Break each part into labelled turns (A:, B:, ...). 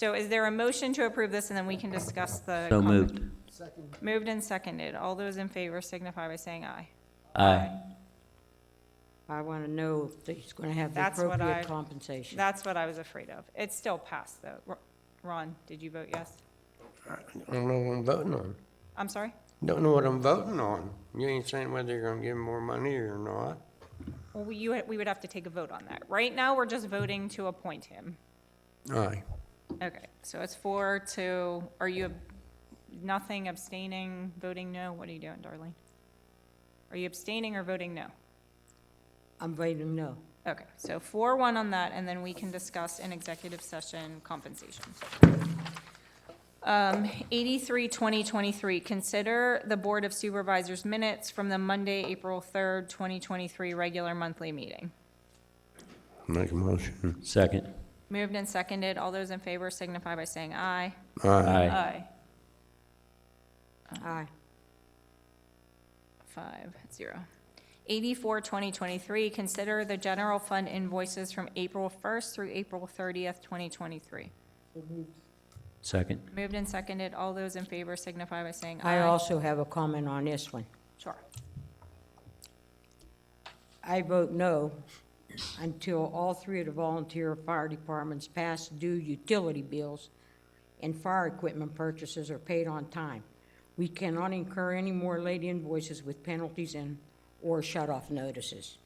A: So is there a motion to approve this, and then we can discuss the?
B: So
A: comment-
B: moved.
A: Moved and seconded. All those in favor signify by saying aye.
B: Aye.
C: I want to know if he's going to have the
A: That's what I-
C: appropriate compensation.
A: That's what I was afraid of. It's still passed, though. Ro- Ron, did you vote yes?
D: I don't know what I'm voting on.
A: I'm sorry?
D: Don't know what I'm voting on. You ain't saying whether you're gonna give me more money or not.
A: Well, we, you, we would have to take a vote on that. Right now, we're just voting to appoint him.
D: Aye.
A: Okay, so it's four to, are you, ab- nothing abstaining, voting no? What are you doing, Darlene? Are you abstaining or voting no?
C: I'm voting no.
A: Okay, so four, one on that, and then we can discuss in executive session compensation. Um, eighty-three, twenty twenty-three, consider the Board of Supervisors minutes from the Monday, April third, twenty twenty-three regular monthly meeting.
D: Make a motion.
B: Second.
A: Moved and seconded, all those in favor signify by saying aye.
D: Aye.
A: Aye.
B: Aye.
A: Uh,
C: Aye.
A: Five, zero. Eighty-four, twenty twenty-three, consider the general fund invoices from April first through April thirtieth, twenty twenty-three.
B: Second.
A: Moved and seconded, all those in favor signify by saying aye.
C: I also have a comment on this one.
A: Sure.
C: I vote no until all three of the volunteer fire departments pass due utility bills and fire equipment purchases are paid on time. We cannot incur any more late invoices with penalties and or shut-off notices.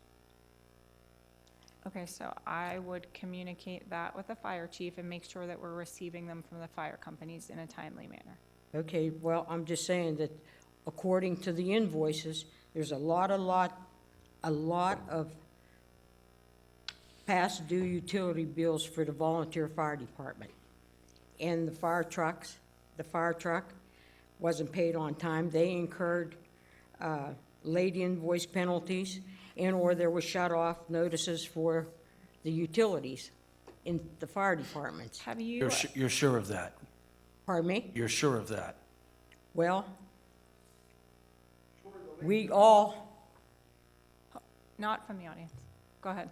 A: Okay, so I would communicate that with the fire chief and make sure that we're receiving them from the fire companies in a timely manner.
C: Okay, well, I'm just saying that according to the invoices, there's a lot, a lot, a lot of past due utility bills for the volunteer fire department. And the fire trucks, the fire truck wasn't paid on time. They incurred uh, late invoice penalties and/or there were shut-off notices for the utilities in the fire departments.
A: Have you,
E: You're, su- you're sure of that?
C: Pardon me?
E: You're sure of that?
C: Well, we all,
A: not from the audience, go ahead.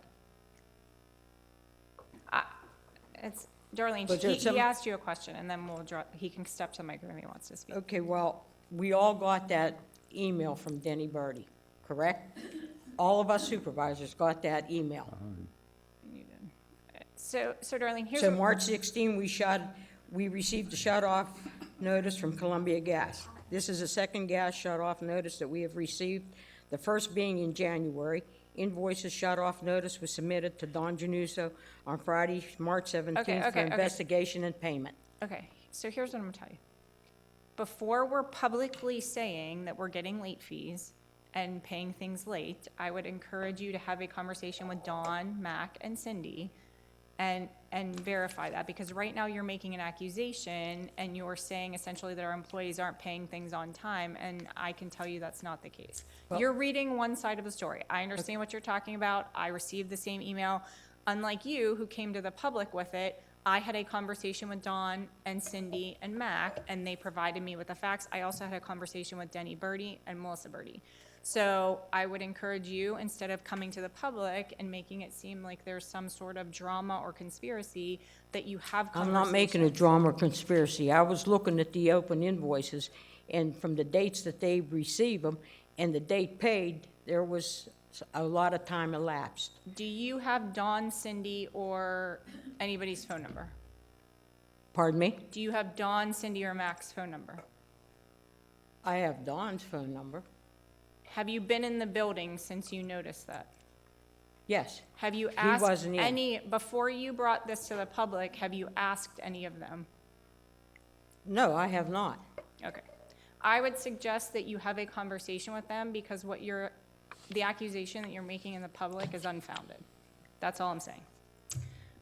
A: I- Uh, It's, Darlene,
C: Was there
A: he- he
C: some-
A: asked you a question, and then we'll draw, he can step to the microphone if he wants to speak.
C: okay, well, we all got that email from Denny Birdie, correct? All of us supervisors got that email.
A: So, so Darlene, here's.
C: So
A: what-
C: March 16, we shut, we received a shut-off notice from Columbia Gas. This is the second gas shut-off notice that we have received, the first being in January. Invoices shut-off notice was submitted to Don Januso on Friday, March 17th, for
A: okay, okay.
C: investigation and payment.
A: Okay, so here's what I'm gonna tell you. Before we're publicly saying that we're getting late fees and paying things late, I would encourage you to have a conversation with Dawn, Mac, and Cindy and, and verify that, because right now you're making an accusation and you're saying essentially that our employees aren't paying things on time, and I can tell you that's not the case. You're reading one side of the story. I understand what you're talking about. I received the same email. Unlike you, who came to the public with it, I had a conversation with Dawn and Cindy and Mac, and they provided me with the facts. I also had a conversation with Denny Birdie and Melissa Birdie. So I would encourage you, instead of coming to the public and making it seem like there's some sort of drama or conspiracy, that you have
C: I'm
A: conversations.
C: not making a drama or conspiracy. I was looking at the open invoices, and from the dates that they received them and the date paid, there was a lot of time elapsed.
A: Do you have Dawn, Cindy, or anybody's phone number?
C: Pardon me?
A: Do you have Dawn, Cindy, or Mac's phone number?
C: I have Don's phone number.
A: Have you been in the building since you noticed that?
C: Yes,
A: Have you asked
C: wasn't in.
A: any, before you brought this to the public, have you asked any of them?
C: no, I have not.
A: Okay. I would suggest that you have a conversation with them because what you're, the accusation that you're making in the public is unfounded. That's all I'm saying.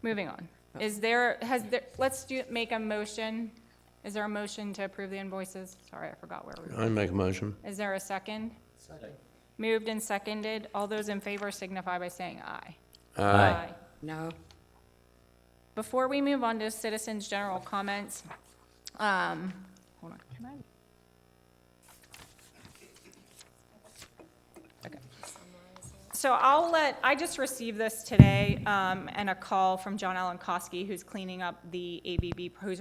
A: Moving on. Is there, has there, let's do, make a motion. Is there a motion to approve the invoices? Sorry, I forgot where we
D: I make a motion.
A: were. Is there a second? Second. Moved and seconded. All those in favor signify by saying aye.
B: Aye.
C: No,
A: Before we move on to citizens' general comments, um, hold on, can I? Okay. so I'll let, I just received this today, um, and a call from John Alan Kosky, who's cleaning up the ABB, who's